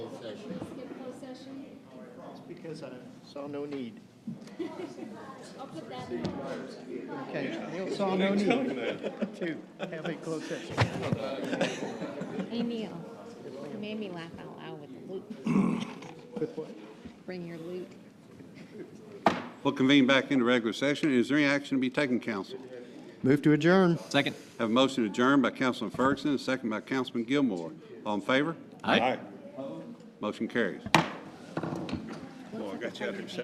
because I saw no need. I'll put that in. Okay, Neil saw no need to have a closed session. Hey Neil, uh, you made me laugh out loud with the loot. With what? Bring your loot. We'll convene back into regular session. Is there any action to be taken, council? Move to adjourn. Second. Have a motion adjourned by Councilman Ferguson, and second by Councilman Gilmore. All in favor? Aye. Motion carries. Looks like a got you out there.